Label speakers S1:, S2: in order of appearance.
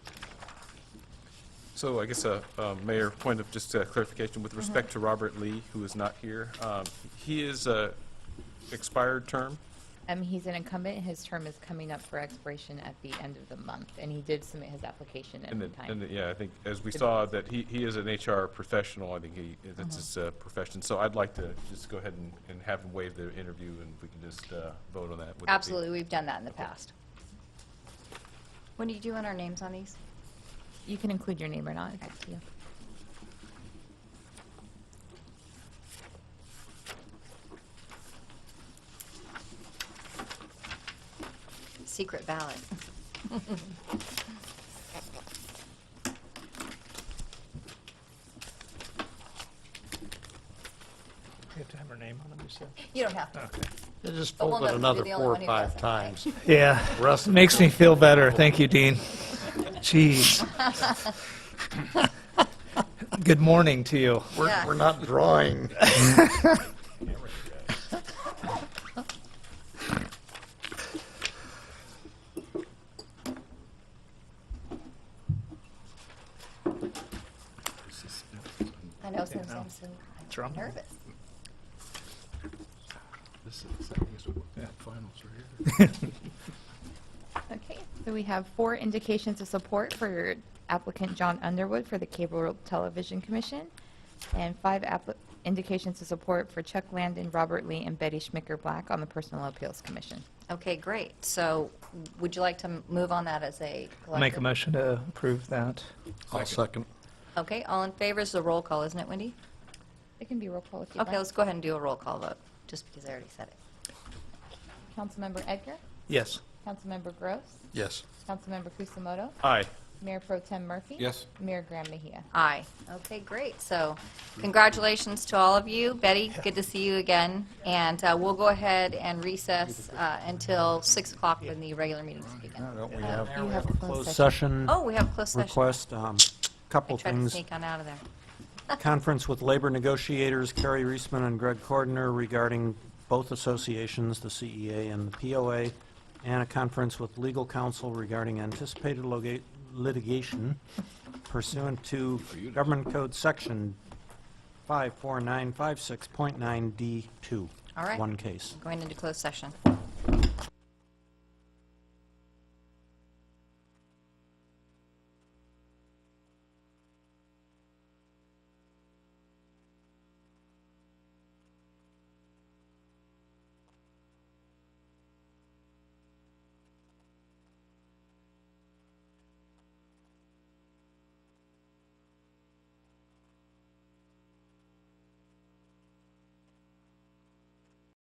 S1: So I guess, uh, uh, Mayor, point of just uh, clarification with respect to Robert Lee, who is not here. um, He is a expired term.
S2: Um, he's an incumbent, and his term is coming up for expiration at the end of the month, and he did submit his application
S1: And
S2: in
S1: then,
S2: time.
S1: and then, yeah, I think, as we saw, that he, he is an HR professional, I think he, that's his uh, profession. So I'd like to just go ahead and, and have him waive the interview, and we can just uh, vote on that. Would that be-
S2: Absolutely, we've done that in the past.
S3: When do you do on our names on these?
S2: You can include your name or not, it's up to you.
S3: Secret ballot.
S4: You have to have her name on them, you said?
S3: You don't have to.
S5: They just
S3: But
S5: fold
S3: one
S5: it
S3: of us will
S5: another
S3: be the only
S5: four or
S3: one who
S5: five
S3: doesn't, right?
S5: times.
S4: Yeah,
S5: Russ,
S4: makes me feel better. Thank you, Dean. Jeez. Good morning to you.
S5: we're,
S3: Yeah.
S5: we're not drawing.
S3: I know, sometimes I'm so
S4: Drum.
S3: nervous.
S6: This is, I guess, what, yeah, finals right here.
S2: Okay, so we have four indications of support for applicant John Underwood for the Cable Television Commission, and five appli- indications of support for Chuck Landon, Robert Lee, and Betty Schmicker Black on the Personal Appeals Commission.
S3: Okay, great. So would you like to m- move on that as a collective?
S4: Make a motion to approve that.
S5: I'll second.
S3: Okay, all in favor, It's a roll call, isn't it, Wendy?
S2: It can be roll call if you
S3: Okay,
S2: like.
S3: let's go ahead and do a roll call vote, just because I already said it.
S2: Councilmember Edgar,
S4: Yes.
S2: Councilmember Gross,
S5: Yes.
S2: Councilmember Kusamoto,
S1: Aye.
S2: Mayor Pro Tem Murphy.
S6: Yes.
S2: Mayor Graham Mejia.
S3: Aye. Okay, great. So congratulations to all of you. Betty, good to see you again. And uh, we'll go ahead and recess uh, until 6 o'clock when the regular meetings begin.
S7: Don't we have
S2: You have a closed
S7: closed
S2: session.
S7: session
S3: Oh, we have a closed session.
S7: request? Um,
S3: I
S7: Couple
S3: tried to
S7: things.
S3: sneak on out of there.
S7: Conference with labor negotiators Carrie Reisman and Greg Cordner regarding both associations, the CEA and the POA, and a conference with legal counsel regarding anticipated loga- litigation pursuant to Government Code Section 54956.9D2.
S3: All right.
S7: One case.
S3: Going into closed session.